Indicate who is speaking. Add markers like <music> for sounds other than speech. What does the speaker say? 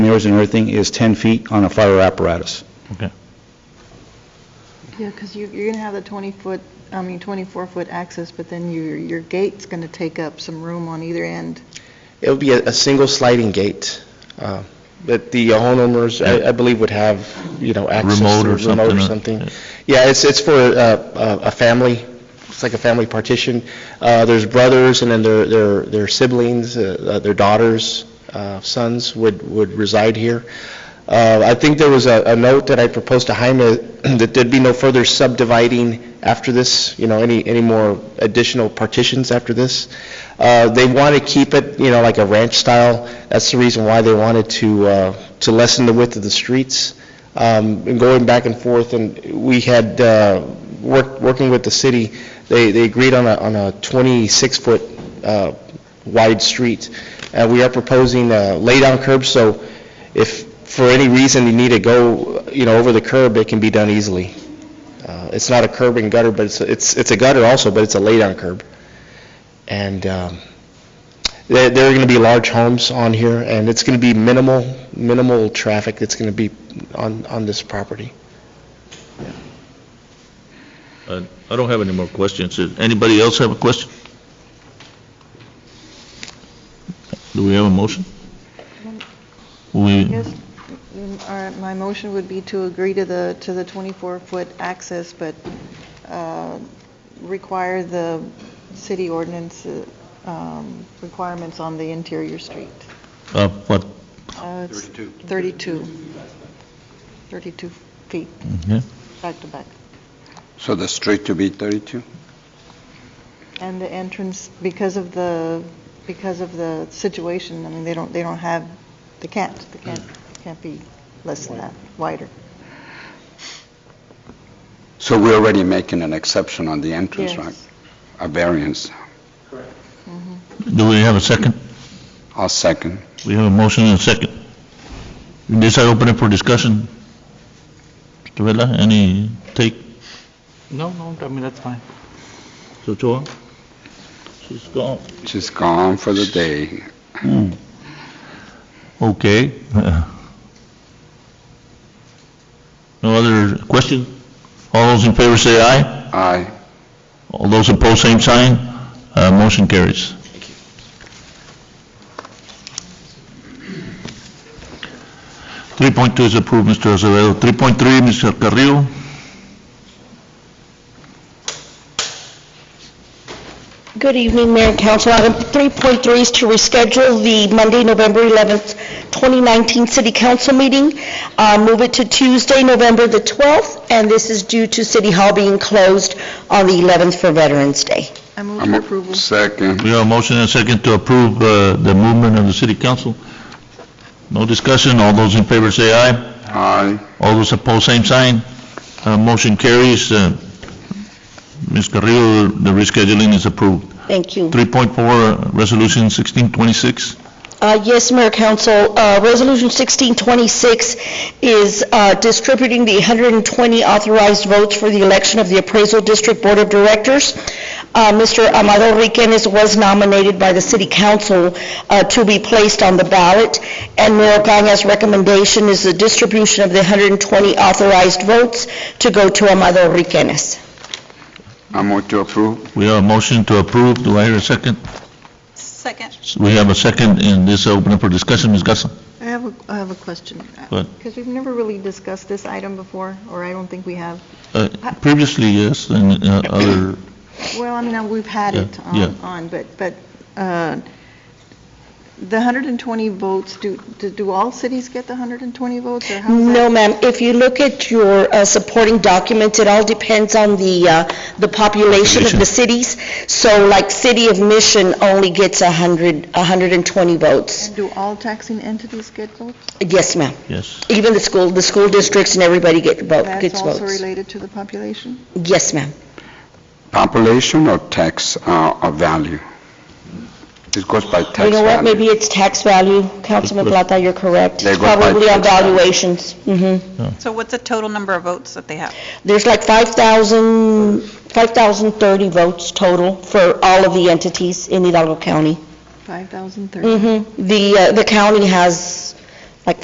Speaker 1: hangers and everything is 10 feet on a fire apparatus.
Speaker 2: Okay.
Speaker 3: Yeah, because you, you're going to have the 20-foot, I mean, 24-foot access, but then your, your gate's going to take up some room on either end.
Speaker 4: It would be a, a single sliding gate uh, that the homeowners, I, I believe, would have, you know, access to.
Speaker 2: Remote or
Speaker 4: Remote
Speaker 2: something,
Speaker 4: or
Speaker 2: uh,
Speaker 4: something.
Speaker 2: yeah.
Speaker 4: Yeah, it's, it's for uh, a, a family, it's like a family partition. Uh, There's brothers, and then their, their their siblings, uh, uh, their daughters, uh, sons would, would reside here. Uh, I think there was a, a note that I proposed to Jaime, <clears throat> that there'd be no further subdividing after this, you know, any, any more additional partitions after this. Uh, They want to keep it, you know, like a ranch style. That's the reason why they wanted to, uh, to lessen the width of the streets. Um, And going back and forth, and we had, uh, worked, working with the city, they, they agreed on a, on a 26-foot uh, wide street. And we are proposing uh, lay-down curbs, so if for any reason you need to go, you know, over the curb, it can be done easily. Uh, It's not a curb and gutter, but it's, it's it's a gutter also, but it's a lay-down curb. And um, there there are going to be large homes on here, and it's going to be minimal, minimal traffic that's going to be on, on this property.
Speaker 2: I Uh, I don't have any more questions. Does Anybody else have a question? Do we have a motion? We,
Speaker 3: Yes, mm, all right, my motion would be to agree to the, to the 24-foot access, but uh, require the city ordinance uh, um, requirements on the interior street.
Speaker 2: uh, what,
Speaker 3: Uh, it's 32. 32 feet,
Speaker 2: yeah?
Speaker 3: back to back.
Speaker 5: So the street to be 32?
Speaker 3: And the entrance, because of the, because of the situation, I mean, they don't, they don't have, they can't, they can't,
Speaker 5: Mm.
Speaker 3: can't be less than that, wider.
Speaker 5: So we're already making an exception on the entrance, right?
Speaker 3: Yes.
Speaker 5: A variance.
Speaker 2: Do we have a second?
Speaker 5: I'll second.
Speaker 2: We have a motion and a second. This I open it for discussion. Mr. Vela, any take?
Speaker 6: No, no, I mean, that's fine.
Speaker 2: So, Choa? She's gone.
Speaker 5: She's gone for the day.
Speaker 2: Okay. <laughs> No other question? All those in favor say aye.
Speaker 5: Aye.
Speaker 2: All those opposed, same sign. Uh, Motion carries. Three point two is approved, Mr. Azevedo. Three point three, Mr. Carrillo.
Speaker 7: Good evening, Mayor and Council. Item 3.3 is to reschedule the Monday, November 11th, 2019 City Council meeting. Uh, Move it to Tuesday, November the 12th, and this is due to City Hall being closed on the 11th for Veterans Day.
Speaker 3: I move
Speaker 5: I'm
Speaker 3: for
Speaker 5: a-
Speaker 3: approval.
Speaker 5: Second.
Speaker 2: We have a motion and a second to approve uh, the movement of the city council. No discussion, all those in favor say aye.
Speaker 5: Aye.
Speaker 2: All those opposed, same sign. Uh, Motion carries. Uh, Ms. Carrillo, the rescheduling is approved.
Speaker 7: Thank you.
Speaker 2: 3.4, Resolution 1626.
Speaker 7: Uh, Yes, Mayor Council, uh, Resolution 1626 is uh, distributing the 120 authorized votes for the election of the Appraisal District Board of Directors. Uh, Mr. Amado Riquenes was nominated by the City Council uh, to be placed on the ballot, and Mayor Gana's recommendation is the distribution of the 120 authorized votes to go to Amado Riquenes.
Speaker 5: I move to approve.
Speaker 2: We have a motion to approve. Do I hear a second?
Speaker 3: Second.
Speaker 2: We have a second, and this open up for discussion, Ms. Garza.
Speaker 3: I have a, I have a question.
Speaker 2: Go ahead.
Speaker 3: Because we've never really discussed this item before, or I don't think we have.
Speaker 2: Uh, Previously, yes, and uh, other,
Speaker 3: Well, I mean, uh, we've had it
Speaker 2: Yeah,
Speaker 3: on,
Speaker 2: yeah.
Speaker 3: on, but, but uh, the 120 votes, do, do- do all cities get the 120 votes, or how's that?
Speaker 7: No, ma'am. If you look at your uh, supporting documents, it all depends on the, uh, the population of
Speaker 2: Population.
Speaker 7: the cities. So like City of Mission only gets 100, 120 votes.
Speaker 3: Do all taxing entities get votes?
Speaker 7: Yes, ma'am.
Speaker 2: yes.
Speaker 7: Even the school, the school districts and everybody get vote,
Speaker 3: That's
Speaker 7: gets
Speaker 3: also
Speaker 7: votes.
Speaker 3: related to the population?
Speaker 7: Yes, ma'am.
Speaker 5: Population or tax uh, or value? It goes by tax value.
Speaker 7: You know what? Maybe it's tax value. Councilman Plata, you're correct.
Speaker 5: They go by
Speaker 7: Probably on
Speaker 5: tax value.
Speaker 7: valuations. Mm-hmm.
Speaker 8: So what's the total number of votes that they have?
Speaker 7: There's like 5,000, 5,030 votes total for all of the entities in Hidalgo County.
Speaker 3: 5,030?
Speaker 7: Mm-hmm. Mhm. The, uh, the county has